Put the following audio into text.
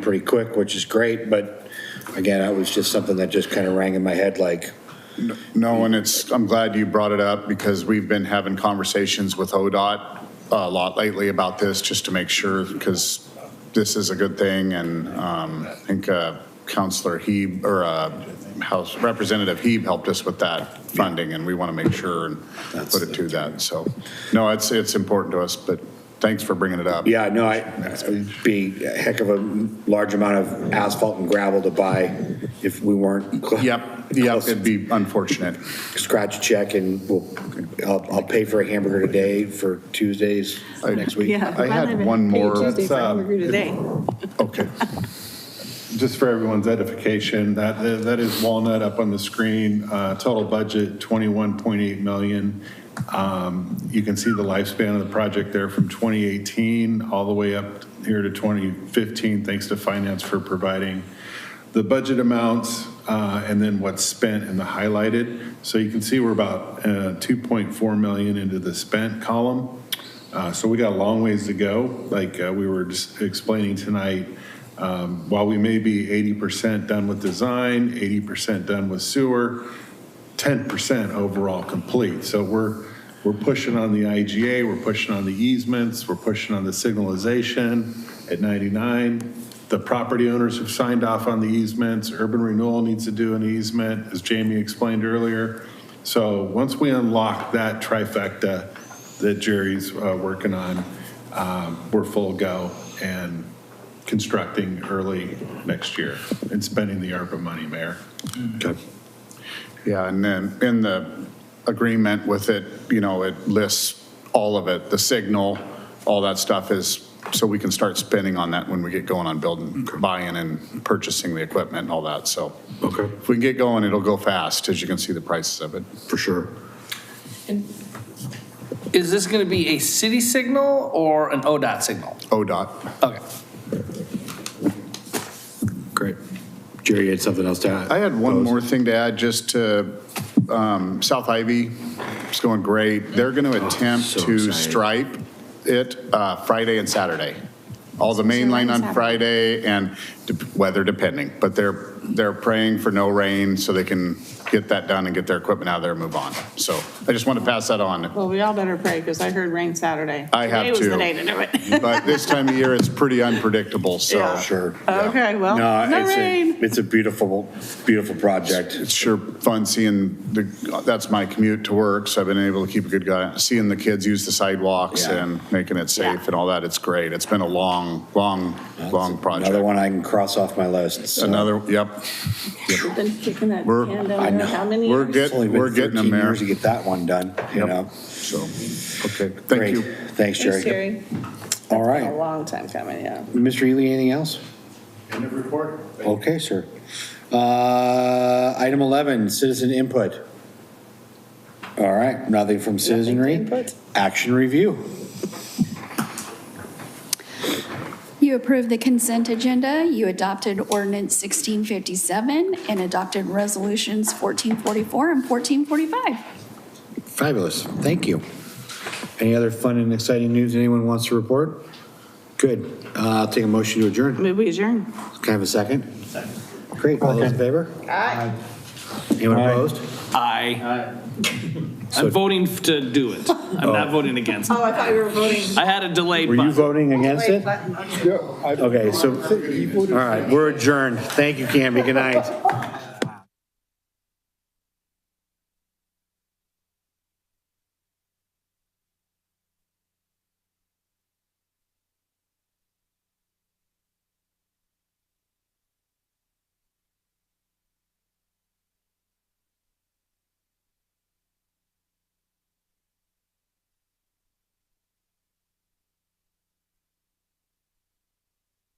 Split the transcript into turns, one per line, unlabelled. pretty quick, which is great, but again, that was just something that just kind of rang in my head like,
No, and it's, I'm glad you brought it up because we've been having conversations with ODOT a lot lately about this, just to make sure, because this is a good thing. And um, I think uh, Counselor Hebe, or uh, House Representative Hebe helped us with that funding, and we want to make sure and put it to that. So, no, it's, it's important to us, but thanks for bringing it up.
yeah, no, I, it'd be a heck of a large amount of asphalt and gravel to buy if we weren't. cl-
Yep, yep,
close.
it'd be unfortunate.
Scratch a check and we'll, I'll, I'll pay for a hamburger today for Tuesdays
I-
next week.
Yeah.
I had one more.
Tuesday for
That's, uh,
hamburger today.
Okay.
Just for everyone's edification, that, that is Walnut up on the screen, uh, total budget 21.8 million. Um, You can see the lifespan of the project there from 2018 all the way up here to 2015, thanks to finance for providing the budget amounts uh, and then what's spent in the highlighted. So you can see we're about uh, 2.4 million into the spent column. Uh, So we got a long ways to go. Like uh, we were just explaining tonight, um, while we may be 80% done with design, 80% done with sewer, 10% overall complete. So we're, we're pushing on the IGA, we're pushing on the easements, we're pushing on the signalization at 99. The property owners have signed off on the easements, urban renewal needs to do an easement, as Jamie explained earlier. So once we unlock that trifecta that Jerry's uh, working on, um, we're full go and constructing early next year and spending the ARPA money, Mayor.
Yeah, and then in the agreement with it, you know, it lists all of it, the signal, all that stuff is, so we can start spending on that when we get going on building, buying and purchasing the equipment and all that, so. Okay. If we can get going, it'll go fast, as you can see the prices of it.
For sure.
Is this going to be a city signal or an ODOT signal?
ODOT.
Okay.
Great. Jerry, you had something else to add?
I had one more thing to add, just to um, South Ivy, it's going great. They're going to attempt
Oh, so
to
excited.
stripe it uh, Friday and Saturday. All the main line on Friday and dep- weather depending, but they're, they're praying for no rain so they can get that done and get their equipment out of there and move on. So I just want to pass that on.
Well, we all better pray because I heard rain Saturday.
I have
Today was the
too.
day to do it.
But this time of year, it's pretty unpredictable, so.
Yeah.
Sure.
Okay, well,
No,
no
it's a,
rain.
it's a beautiful, beautiful project.
it's sure fun seeing the, that's my commute to work, so I've been able to keep a good guy, seeing the kids use the sidewalks
Yeah.
and making it safe
Yeah.
and all that, it's great. It's been a long, long, long
Another
project.
one I can cross off my list. so-
Another, yep,
We've Been kicking that
We're-
can
I know.
down there how many
We're
years?
good.
It's only been
We're getting
13
there.
years to get that one done, you
Yep.
know?
so, okay, thank
Great.
you.
Thanks,
Thanks,
Jerry.
Jerry.
All
A
right.
long time coming, yeah.
Mr. Ely, anything else?
End of report.
Okay, sir. Uh, Item 11, citizen input. All right, nothing from citizenry.
input.
Action review.
You approved the consent agenda, you adopted ordinance 1657, and adopted resolutions 1444 and 1445.
Fabulous, thank you. Any other fun and exciting news anyone wants to report? Good. Uh, I'll take a motion to adjourn.
Move we adjourn.
Can I have a second? Great, all those in favor? Aye. Anyone opposed?
I.
Uh,
I'm voting to do it. I'm not voting against it.
Oh, I thought you were voting.
I had a delay
Were you
button.
voting against it? Okay, so, all right, we're adjourned. Thank you, Camby, good night.